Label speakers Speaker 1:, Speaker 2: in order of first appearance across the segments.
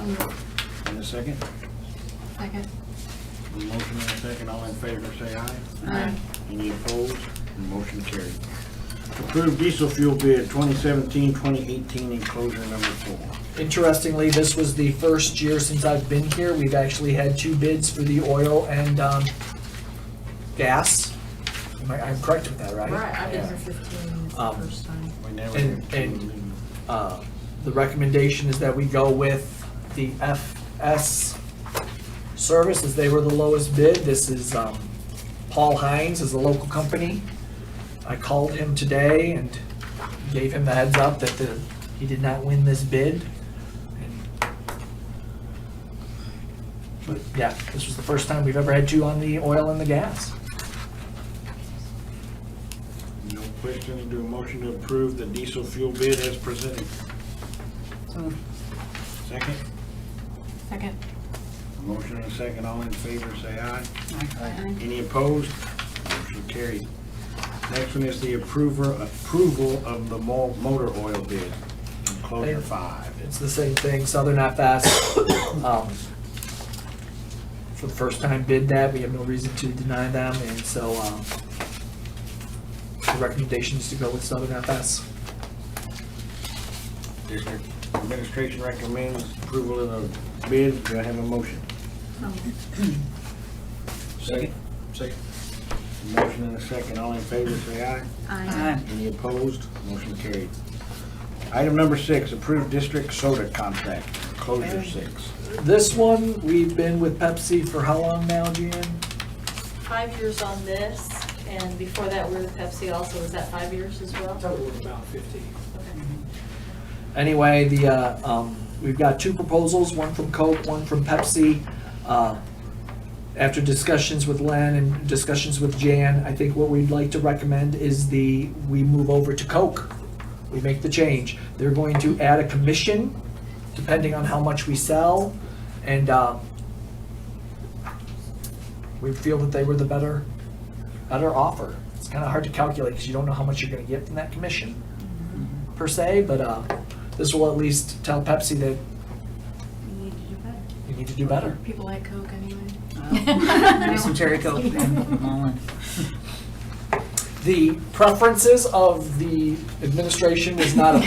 Speaker 1: And a second?
Speaker 2: Second.
Speaker 1: A Motion and a second, all in favor, say aye.
Speaker 2: Aye.
Speaker 1: Any opposed? Motion carried. Approved diesel fuel bid 2017-2018 enclosure number four.
Speaker 3: Interestingly, this was the first year since I've been here, we've actually had two bids for the oil and, um, gas. Am I, I'm correct with that, right?
Speaker 2: Right, I've been
Speaker 3: Yeah.
Speaker 2: here fifteen, it's the
Speaker 3: Um,
Speaker 2: first time.
Speaker 1: We never
Speaker 3: And-
Speaker 1: had two
Speaker 3: and-
Speaker 1: leave.
Speaker 3: Uh, The recommendation is that we go with the FS service, as they were the lowest bid. This is, um, Paul Hines is a local company. I called him today and gave him the heads up that the, he did not win this bid. But yeah, this was the first time we've ever had two on the oil and the gas.
Speaker 1: No questions, do a motion to approve the diesel fuel bid as presented. Second?
Speaker 2: Second.
Speaker 1: A Motion and a second, all in favor, say aye.
Speaker 2: Aye.
Speaker 1: Any opposed? Motion carried. Next one is the approver, approval of the mo- motor oil bid, enclosure five.
Speaker 3: It's the same thing, Southern FS. um, For the first time bid that, we have no reason to deny them, and so um, the recommendation is to go with Southern FS.
Speaker 1: District Administration recommends approval of the bid. Do I have a motion?
Speaker 2: Um,
Speaker 1: Second. Second. Motion and a second. All in favor, say aye.
Speaker 2: Aye.
Speaker 1: Any opposed? Motion carried. Item number six, approved district soda contract, closure six.
Speaker 3: This one, we've been with Pepsi for how long now, Jan?
Speaker 4: five years on this, and before that, we were with Pepsi also, was that five years as well?
Speaker 5: Total of about 50.
Speaker 4: Okay.
Speaker 3: Anyway, the, uh, um, we've got two proposals, one from Coke, one from Pepsi. Uh, After discussions with Len and discussions with Jan, I think what we'd like to recommend is the, we move over to Coke. We make the change. They're going to add a commission, depending on how much we sell, and, uh, we feel that they were the better, better offer. It's kinda hard to calculate, because you don't know how much you're gonna get from that commission per se, but uh, this will at least tell Pepsi that
Speaker 2: We need to do better.
Speaker 3: you need to do better.
Speaker 2: People like Coke anyway.
Speaker 6: Maybe some cherry coke then, Mullen.
Speaker 3: The preferences of the administration was not a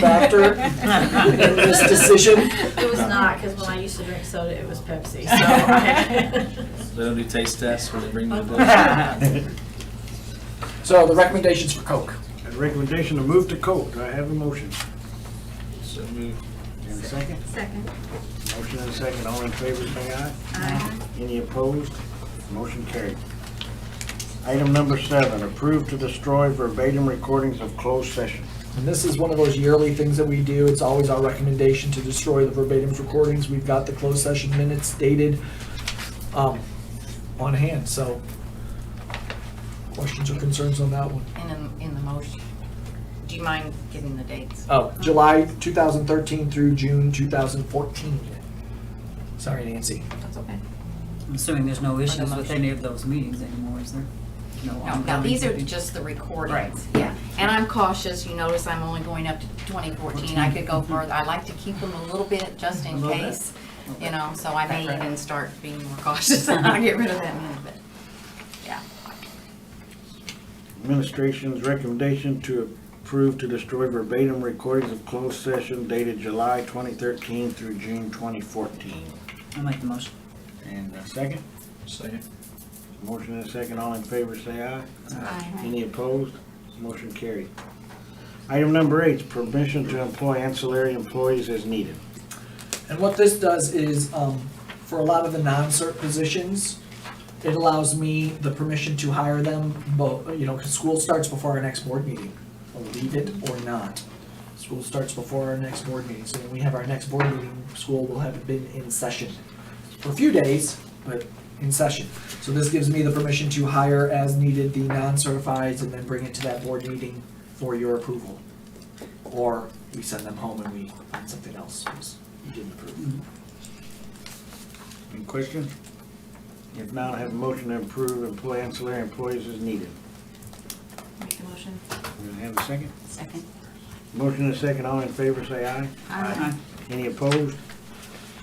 Speaker 3: factor in this decision.
Speaker 4: It was not, because when I used to drink soda, it was Pepsi, so. I-
Speaker 7: They don't do taste tests when they bring you the
Speaker 3: So the recommendations for Coke.
Speaker 1: And recommendation to move to Coke. Do I have a motion?
Speaker 7: So move.
Speaker 1: And a second?
Speaker 2: Second.
Speaker 1: Motion and a second. All in favor, say aye.
Speaker 2: Aye.
Speaker 1: Any opposed? Motion carried. Item number seven, approve to destroy verbatim recordings of closed session.
Speaker 3: And this is one of those yearly things that we do. It's always our recommendation to destroy the verbatim recordings. We've got the closed session minutes dated um, on hand, so questions or concerns on that one?
Speaker 6: In the, in the motion. Do you mind giving the dates?
Speaker 3: Oh, July 2013 through June 2014. Sorry, Nancy.
Speaker 2: That's okay.
Speaker 6: I'm assuming there's no issues with any of those meetings anymore, is there? No,
Speaker 8: No, now,
Speaker 6: ongoing-
Speaker 8: these are just the recordings.
Speaker 6: Right.
Speaker 8: Yeah, and I'm cautious, you notice I'm only going up to 2014, I could go further, I like to keep them a little bit, just
Speaker 6: A
Speaker 8: in
Speaker 6: little bit.
Speaker 8: case, you know, so I may
Speaker 6: Right.
Speaker 8: even start being more cautious, and I'll get rid of that minute, but, yeah.
Speaker 1: Administration's recommendation to approve to destroy verbatim recordings of closed session dated July 2013 through June 2014.
Speaker 6: I'll make the motion.
Speaker 1: And a second?
Speaker 7: Second.
Speaker 1: Motion and a second, all in favor, say aye.
Speaker 2: Aye.
Speaker 1: Any opposed? Motion carried. Item number eight, permission to employ ancillary employees as needed.
Speaker 3: And what this does is, um, for a lot of the non-cert positions, it allows me the permission to hire them, but, you know, 'cause school starts before our next board meeting, believe it or not. School starts before our next board meeting, so when we have our next board meeting, school will have been in session for a few days, but in session. So this gives me the permission to hire as needed the non-certifieds and then bring it to that board meeting for your approval. Or we send them home and we find something else, 'cause you didn't approve.
Speaker 1: Any questions? If not, I have a motion to approve employ ancillary employees as needed.
Speaker 2: Make the motion.
Speaker 1: Do I have a second?
Speaker 8: Second.
Speaker 1: Motion and a second, all in favor, say aye.
Speaker 8: Aye.
Speaker 1: Any opposed?